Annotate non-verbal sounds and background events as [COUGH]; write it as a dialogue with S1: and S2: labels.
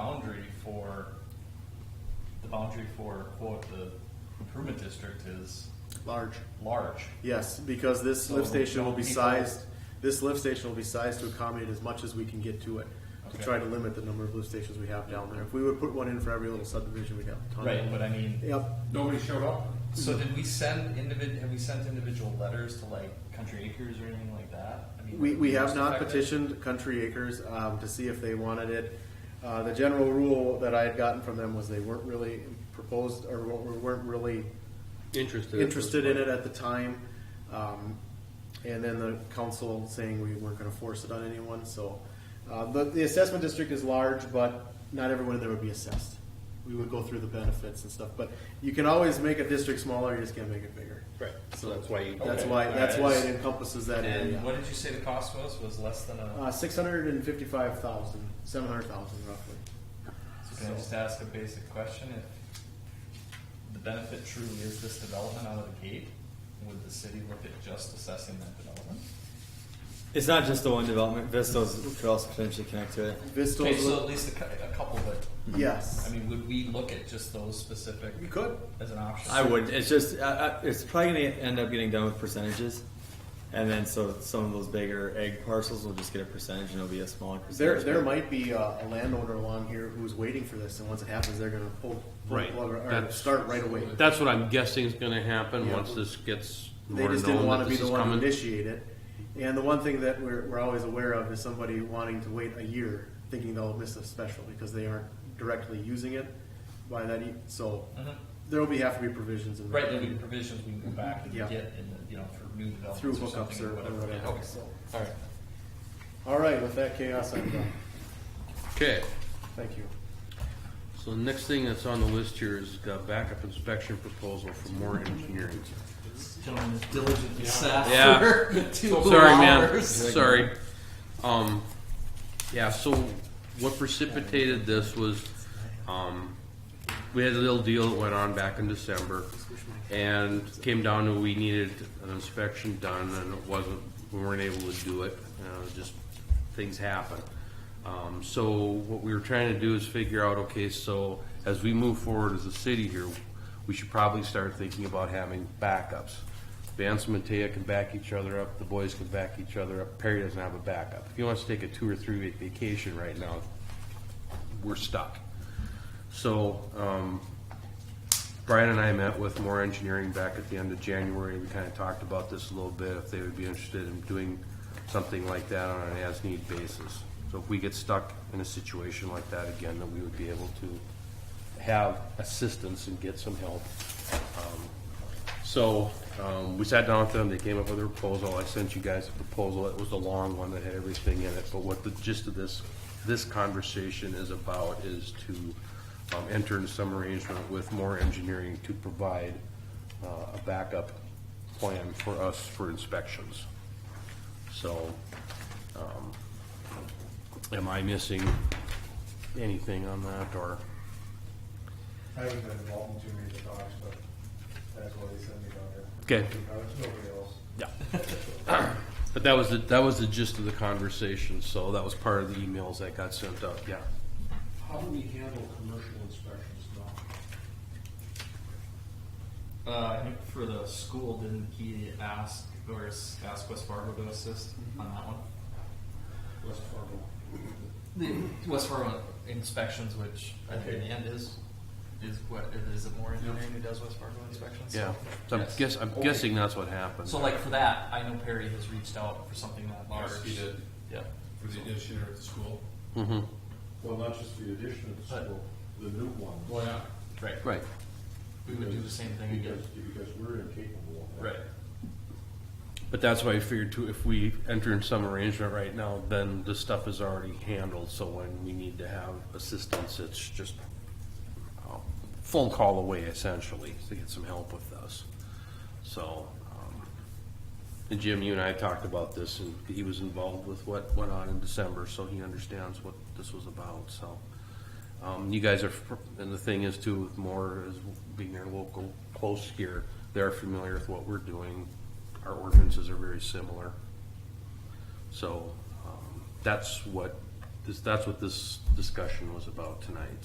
S1: boundary for, the boundary for quote, the improvement district is
S2: Large.
S1: large.
S2: Yes, because this lift
S1: So,
S2: station will
S1: don't
S2: be
S1: people-
S2: sized, this lift station will be sized to accommodate as much as we can get to it. To
S1: Okay.
S2: try to limit the number of lift stations we have down there. If we would put one in for every little subdivision, we'd have a ton.
S1: Right, but I mean,
S2: Yep,
S3: Nobody showed up?
S1: so did we send individ, have we sent individual letters to like Country Acres or anything like that? I mean,
S2: We, we have
S1: most
S2: not
S1: effective?
S2: petitioned Country Acres um, to see if they wanted it. Uh, The general rule that I had gotten from them was they weren't really proposed, or wa- weren't really
S3: Interested.
S2: interested in it at the time. Um, And then the council saying we weren't gonna force it on anyone, so. uh, But the assessment district is large, but not everyone there would be assessed. We would go through the benefits and stuff, but you can always make a district smaller, you just can't make it bigger.
S3: Right, so that's why you.
S2: That's
S1: Okay.
S2: why, that's why it
S1: Alright.
S2: encompasses that area.
S1: And what did you say the cost was? Was less than a?
S2: Uh, six hundred and fifty-five thousand, seven hundred thousand roughly.
S1: Can I just ask a basic question? If the benefit truly is this development out of the gate, would the city look at just assessing that development?
S4: It's not just the one development. Vistos could also potentially connect to it.
S1: Okay, so
S2: Vistos,
S1: at least a, cou- a couple, but, I
S2: yes.
S1: mean, would we look at just those specific
S2: You could.
S1: as an option?
S4: I would. It's just I, I, it's probably going to end up getting done with percentages, and then so some of those bigger egg parcels will just get a percentage, and it'll be a smaller
S2: There,
S4: percentage.
S2: there might be a, a landowner along here who's waiting for this, and once it happens, they're gonna pull, pull the
S5: Right.
S2: plug or- or
S5: That's-
S2: start right away.
S5: That's what I'm guessing is gonna happen
S2: Yeah.
S5: once this gets
S2: They
S5: more
S2: just didn't
S5: known
S2: wanna
S5: that
S2: be
S5: this
S2: the
S5: is
S2: one to
S5: coming.
S2: initiate it. And the one thing that we're, we're always aware of is somebody wanting to wait a year, thinking they'll miss a special, because they aren't directly using it by that, e- so
S1: Mhm.
S2: there'll be, have to be provisions in.
S1: Right, there'll be provisions we can go back and
S2: Yeah.
S1: get in, the- you know, for new
S2: Through
S1: developments or
S2: hookups
S1: something
S2: or
S1: or
S2: or
S1: whatever.
S2: whatever,
S1: Okay.
S2: so.
S1: All right.
S2: All right, with that chaos, I'm done.
S5: Okay,
S2: Thank you.
S5: so the next thing that's on the list here is the backup inspection proposal for more
S2: [LAUGHS]
S5: engineering.
S1: Gentlemen, is diligently sat
S5: Yeah.
S1: for two
S5: [LAUGHS] Sorry, man,
S1: hours.
S5: sorry. Um, yeah, so what precipitated this was, um, we had a little deal that went on back in December. And came down to we needed an inspection done and it wasn't, we weren't able to do it, uh, just things happen. Um, so what we were trying to do is figure out, okay, so as we move forward as a city here, we should probably start thinking about having backups. Vance and Matea can back each other up, the boys can back each other up, Perry doesn't have a backup. If he wants to take a two or three week vacation right now, we're stuck. So, um, Brian and I met with Moore Engineering back at the end of January. We kind of talked about this a little bit, if they would be interested in doing something like that on an as-need basis. So if we get stuck in a situation like that again, that we would be able to have assistance and get some help. Um, So, um, we sat down with them, they came up with a proposal. I sent you guys a proposal. It was a long one that had everything in it. But what the gist of this, this conversation is about is to um, enter into some arrangement with more engineering to provide uh, a backup plan for us for inspections. So, um, am I missing anything on that, or?
S6: I haven't been involved in too many of the talks, but that's why they sent me down here.
S5: Okay.
S6: Nobody else.
S5: Yeah. But that was, the that was the gist of the conversation, so that was part of the emails that got sent out, yeah.
S3: How do we handle commercial inspections now?
S1: Uh, I think for the school, didn't he ask, or s- ask West Fargo to assist on that one?
S3: West Fargo.
S1: The West Fargo inspections, which I think in the end is, is what, is it more engineering who does West Fargo inspections?
S5: Yeah, so I'm
S1: Yes.
S5: guess, I'm
S1: Okay.
S5: guessing that's what happened.
S1: So like for that, I know Perry has reached out for something that large.
S7: Yes, he did,
S1: Yeah.
S7: for the addition or at the school.
S5: hmm
S6: Well, not just the addition of the
S1: But-
S6: school, the new one.
S7: Well, yeah.
S1: Right.
S5: right.
S1: We would do the same thing again.
S6: Because, because we're incapable of that.
S1: Right.
S5: But that's why I figured too, if we enter in some arrangement right now, then the stuff is already handled, so when we need to have assistance, it's just a phone call away essentially, to get some help with us. So, um, and Jim, you and I talked about this, and he was involved with what went on in December, so he understands what this was about, so. Um, you guys are, and the thing is too, with more is being their local, close here, they're familiar with what we're doing. Our ordinances are very similar. So, um, that's what this, that's what this discussion was about tonight,